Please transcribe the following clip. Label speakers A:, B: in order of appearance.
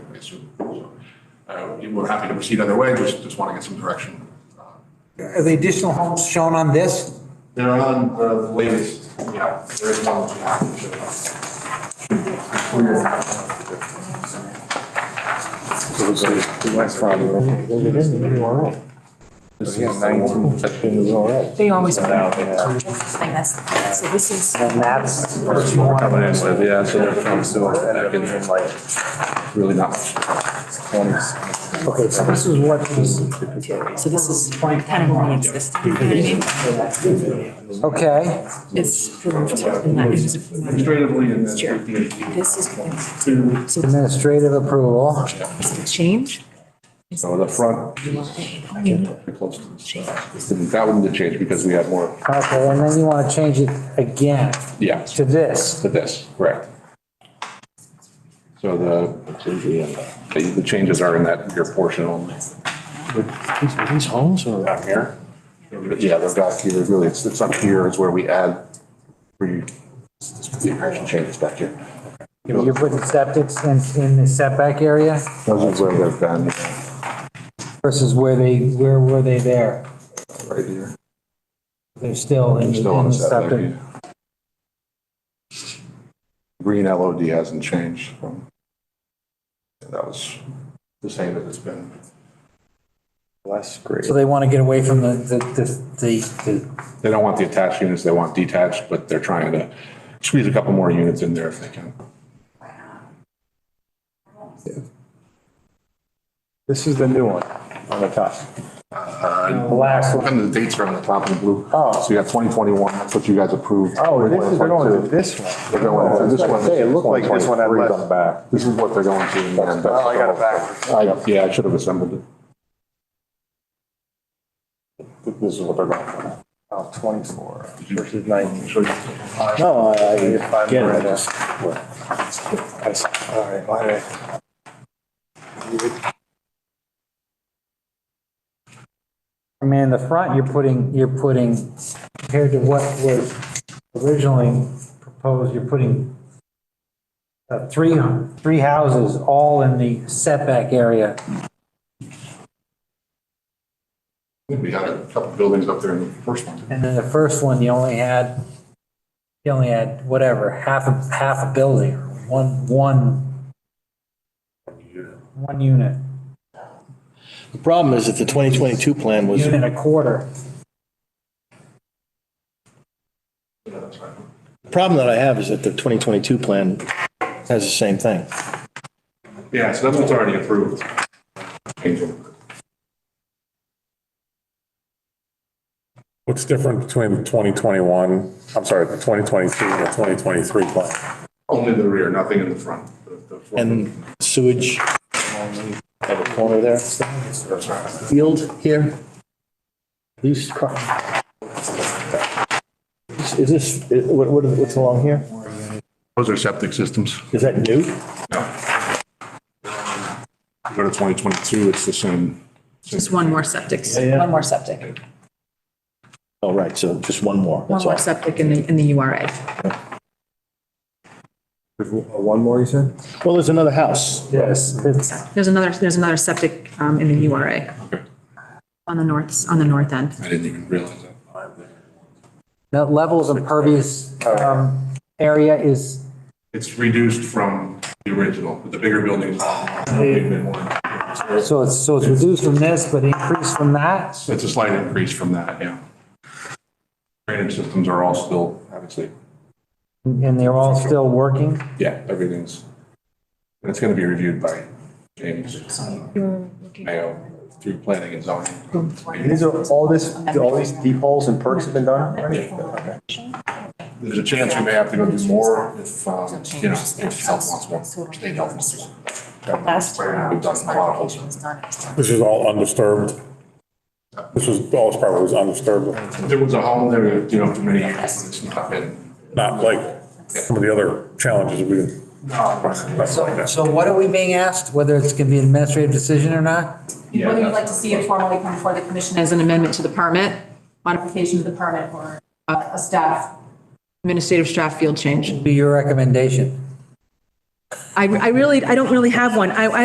A: pretty soon. So uh, We're happy to proceed either way, just, just want to get some direction.
B: Are the additional homes shown on this?
A: They're on uh, the latest, yeah, there is one which we have to show.
C: They always. put
D: out,
C: it
D: yeah.
C: on this thing, that's- So this is,
B: And that's.
D: coming in with, yeah, so they're from, so I can, like, really not much. Twenties.
B: Okay, so this is what, the-
C: so this is kind of only existing. you know what I mean?
B: okay,
C: It's approved. and that is approved.
A: Administratively and then.
C: Sure.
A: DEP.
C: This is, so this
B: administrative approval.
C: is the change.
E: Oh,
D: So the front, pretty close to this, uh, this didn't, that one did change because we had more,
B: Okay, and then you want to change it again
D: yeah,
B: to this.
D: to this, correct. So the, the- the changes are in that, your portion only.
E: These homes or?
D: Down here? Yeah, they're back here, really, it's, it's up here is where we add, where you, this configuration changes back here.
B: You're putting septics in, in the setback area
D: Those are where they've been,
B: versus where they, where were they there?
D: right here.
B: They're still
D: They're
B: in the
D: still on the
B: in
E: Mm-hmm.
B: the
D: setback.
B: septic.
D: yeah. Green LOD hasn't changed from, that was the same as it's been.
E: Less great.
B: So they want to get away from the, the, the- the,
D: They don't want the attached units, they want detached, but they're trying to squeeze a couple more units in there if they can.
E: This is the new one on the top.
D: The last one. And the dates are on the top in blue.
E: Oh.
D: So you got 2021, that's what you guys approved.
E: Oh, this is, they're going to
D: 2022.
E: this one.
D: They're going to Oh, this one.
E: Hey, it looked like this one had
D: 2023 's
E: less.
D: on the back. This is what they're going to. and then-
E: Oh, I got it backwards.
D: I- Yeah, I should have assembled it. This is what they're going for.
E: Oh, 24 versus 19. No, I, I get it. I just- I s- All right, all right.
B: I mean, in the front, you're putting, you're putting, compared to what was originally proposed, you're putting uh, three, three houses all in the setback area.
D: We had a couple buildings up there in the first one.
B: And then the first one, you only had, you only had whatever, half a, half a building, or one, one, one unit,
F: The problem is that the 2022 plan was,
B: unit and a quarter.
F: the problem that I have is that the 2022 plan has the same thing.
D: Yeah, so that's what's already approved. Changing.
G: What's different between the 2021, I'm sorry, the 2022 and the 2023 plan?
D: Only the rear, nothing in the front. The- the front-
F: And sewage along the corner there, field here. These car. Is is this, what, what- what's along here?
D: Those are septic systems.
F: Is that new?
D: Go to 2022, it's the same.
C: Just one more septic,
F: yeah.
C: one more septic,
F: Oh, right, so just one more,
C: one
F: that's
C: more
F: all.
C: septic in the, in the URA.
E: One more, you said?
F: Well, there's another house.
B: Yes, it's,
C: There's another, there's another septic um, in the URA on the north, on the north end.
D: I didn't even realize that.
B: now level of impervious, um, area is,
D: It's reduced from the original, but the bigger buildings. It's
B: so it's, so it's reduced from this, but increased from that?
D: a slight increase from that, yeah. Drainage systems are all still, obviously,
B: And they're all still working?
D: yeah, everything's, and it's going to be reviewed by James Mayo through planning and zoning.
E: These are, all this, all these deep holes and perks have been done already?
D: There's a chance we may have to go do more if, um, you know, if health wants more, state health wants more. We've done a lot of holes.
G: This is all undisturbed. This was, all this property was undisturbed,
D: There was a home there, you know, for many years, but it's not been.
G: not like some of the other challenges we,
B: So, so what are we being asked, whether it's gonna be an administrative decision or not?
D: Yeah,
C: Whether you'd
D: that's-
C: like to see it formally come before the commission as an amendment to the permit, modification to the permit, or uh, a a staff, administrative staff field change.
B: Be your recommendation?
C: I, I really, I don't really have one. I, I